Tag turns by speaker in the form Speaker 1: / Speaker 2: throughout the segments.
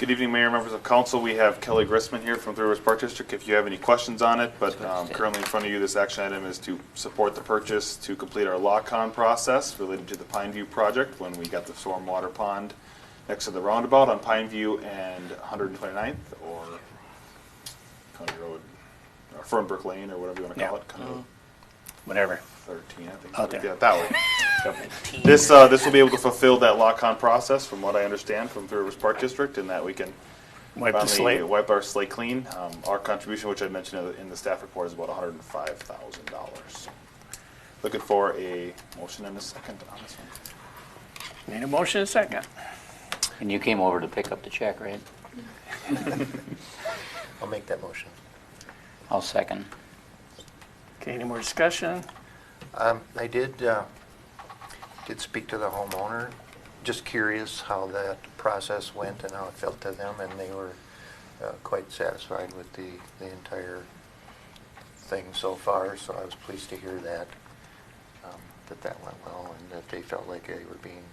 Speaker 1: Good evening, Mayor, members of council. We have Kelly Grissman here from Three Rivers Park District. If you have any questions on it, but um, currently in front of you, this action item is to support the purchase to complete our lock-on process related to the Pine View project when we got the stormwater pond next to the roundabout on Pine View and 129th or County Road, or Fernbrook Lane or whatever you want to call
Speaker 2: Yeah.
Speaker 1: it, County Road
Speaker 2: whatever.
Speaker 1: 13, I think.
Speaker 2: Out there.
Speaker 1: Yeah, that way. Yep. This, uh, this will be able to fulfill that lock-on process, from what I understand, from Three Rivers Park District, and that we can
Speaker 2: Wipe the
Speaker 1: finally
Speaker 2: slate.
Speaker 1: Wipe our slate clean. Um, our contribution, which I mentioned in the- in the staff report, is about hundred and five thousand dollars. Looking for a motion and a second on this one.
Speaker 2: Need a motion and a second.
Speaker 3: And you came over to pick up the check, right?
Speaker 4: I'll make that motion.
Speaker 3: I'll second.
Speaker 2: Okay, any more discussion?
Speaker 4: Um, I did, uh, did speak to the homeowner, just curious how that process went and how it felt to them, and they were uh, quite satisfied with the, the entire thing so far, so I was pleased to hear that, um, that that went well, and that they felt like they were being,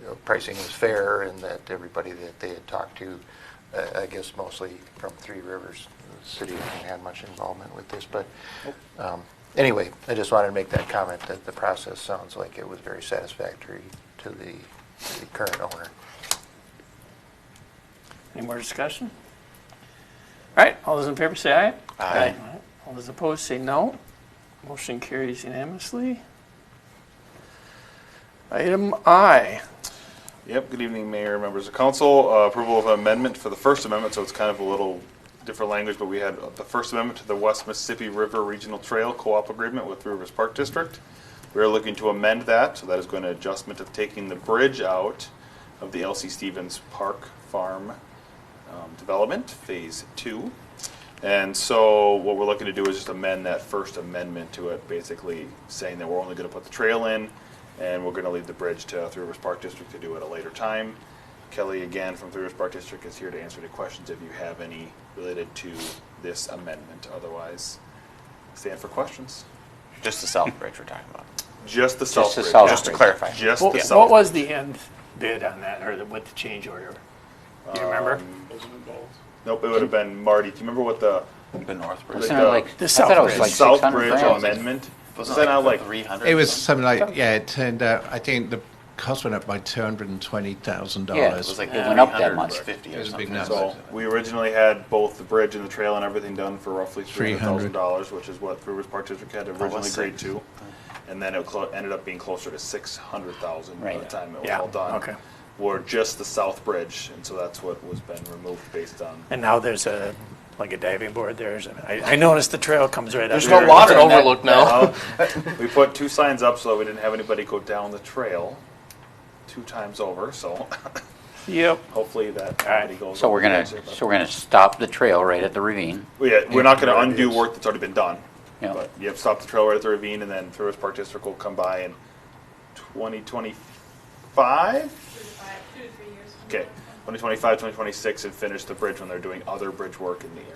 Speaker 4: you know, pricing was fair, and that everybody that they had talked to, uh, I guess mostly from Three Rivers, the city hasn't had much involvement with this, but um, anyway, I just wanted to make that comment, that the process sounds like it was very satisfactory to the, to the current owner.
Speaker 2: Any more discussion? All right, all those in favor say aye.
Speaker 4: Aye.
Speaker 2: All those opposed say no. Motion carries unanimously. Item I,
Speaker 1: Yep, good evening, Mayor, members of council. Uh, Approval of an amendment for the First Amendment, so it's kind of a little different language, but we had the First Amendment to the West Mississippi River Regional Trail Co-op Agreement with Three Rivers Park District. We are looking to amend that, so that is going to adjustment of taking the bridge out of the LC Stevens Park Farm um, Development, Phase Two. And so what we're looking to do is just amend that First Amendment to it, basically saying that we're only gonna put the trail in and we're gonna leave the bridge to Three Rivers Park District to do at a later time. Kelly, again, from Three Rivers Park District is here to answer any questions if you have any related to this amendment. Otherwise, stand for questions.
Speaker 5: Just the South Bridge we're talking about.
Speaker 1: Just the
Speaker 3: Just
Speaker 1: south
Speaker 3: the
Speaker 1: bridge.
Speaker 3: south
Speaker 5: Just to
Speaker 3: bridge.
Speaker 5: clarify.
Speaker 1: Just the
Speaker 2: what
Speaker 1: south.
Speaker 2: what was the end bid on that, or the- what the change order? Do you remember?
Speaker 1: Nope, it would have been Marty. Do you remember what the
Speaker 5: The North Bridge.
Speaker 3: Wasn't it like, I
Speaker 2: The
Speaker 3: thought it was
Speaker 2: Southbridge.
Speaker 3: like
Speaker 1: South
Speaker 3: 600
Speaker 1: Bridge
Speaker 3: grand.
Speaker 1: amendment? Was
Speaker 5: Wasn't
Speaker 1: that not
Speaker 5: the
Speaker 1: like
Speaker 5: 300?
Speaker 6: It was something like, yeah, it turned out, I think the cost went up by $220,000.
Speaker 3: Yeah, it
Speaker 5: It was like
Speaker 2: Yeah. It
Speaker 3: went up that
Speaker 5: 300
Speaker 3: much.
Speaker 5: or 50
Speaker 6: It
Speaker 5: or
Speaker 6: was a big
Speaker 5: something.
Speaker 6: number.
Speaker 1: So we originally had both the bridge and the trail and everything done for roughly three hundred thousand
Speaker 6: 300.
Speaker 1: dollars, which is what Three Rivers Park District
Speaker 3: Oh,
Speaker 1: had originally
Speaker 5: was
Speaker 1: agreed
Speaker 5: six.
Speaker 1: to. And then it clo- ended up being closer to six hundred thousand by the
Speaker 3: Right.
Speaker 1: time it was
Speaker 2: Yeah,
Speaker 1: all done.
Speaker 2: okay.
Speaker 1: Were just the south bridge, and so that's what was been removed based on.
Speaker 2: And now there's a, like a diving board there's, I I noticed the trail comes right up.
Speaker 5: There's
Speaker 2: here.
Speaker 5: no water in that.
Speaker 7: overlook now.
Speaker 3: Oh.
Speaker 1: Uh, We put two signs up so that we didn't have anybody go down the trail two times over, so
Speaker 2: Yep.
Speaker 1: hopefully that nobody goes.
Speaker 3: So
Speaker 1: over
Speaker 3: we're
Speaker 1: the
Speaker 3: gonna,
Speaker 1: bridge there, but-
Speaker 3: so we're gonna stop the trail right at the ravine.
Speaker 1: Yeah, we're not gonna undo work that's already been done.
Speaker 3: Yeah.
Speaker 1: But you have to stop the trail right at the ravine and then Thruwest Park District will come by in twenty twenty-five?
Speaker 8: two to five, two to three years. from
Speaker 1: Okay,
Speaker 8: now.
Speaker 1: 2025, 2026, and finish the bridge when they're doing other bridge work in the area.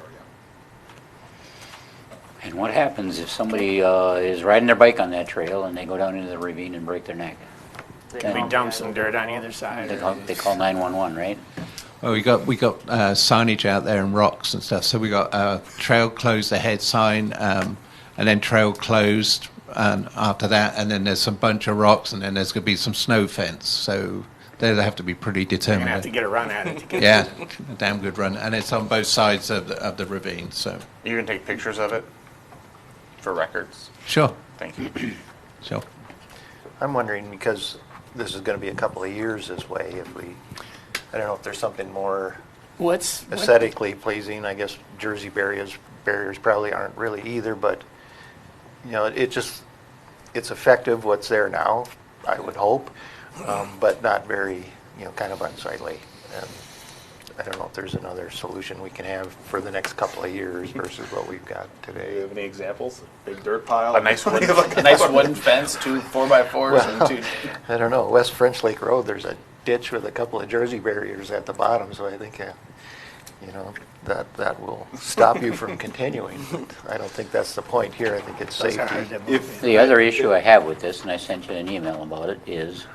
Speaker 3: And what happens if somebody uh, is riding their bike on that trail and they go down into the ravine and break their neck?
Speaker 2: We dump some dirt on either side.
Speaker 3: They call, they call 911, right?
Speaker 6: Well, we got we got uh, signage out there and rocks and stuff. So we got uh, trail closed ahead sign, um, and then trail closed, and after that, and then there's a bunch of rocks, and then there's going to be some snow fence. So they'll have to be pretty
Speaker 2: You're gonna have to
Speaker 6: determined.
Speaker 2: get a run at it to get
Speaker 6: Yeah, a damn good run, and it's on both sides of the, of the ravine. So
Speaker 5: You can take pictures of it for records.
Speaker 6: sure,
Speaker 5: Thank you.
Speaker 6: sure.
Speaker 4: I'm wondering, because this is going to be a couple of years this way, if we, I don't know if there's something more
Speaker 2: What's? what-
Speaker 4: aesthetically pleasing, I guess Jersey barriers, barriers probably aren't really either, but, you know, it just, it's effective what's there now, I would hope, um, but not very, you know, kind of unsightly. And I don't know if there's another solution we can have for the next couple of years versus what we've got
Speaker 1: Do you
Speaker 4: today.
Speaker 1: have any examples? Big dirt pile?
Speaker 5: A nice wooden, a nice wooden fence, two four by fours, and two.
Speaker 4: I don't know, West French Lake Road, there's a ditch with a couple of Jersey barriers at the bottom, so I think, uh, you know, that, that will stop you from continuing. But I don't think that's the point here, I think it's
Speaker 2: Those are hard
Speaker 4: safety.
Speaker 2: to move.
Speaker 1: If-
Speaker 3: The other issue I have with this, and I sent you an email about it, is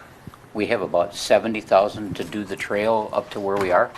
Speaker 3: we have about 70,000 to do the trail up to where we are.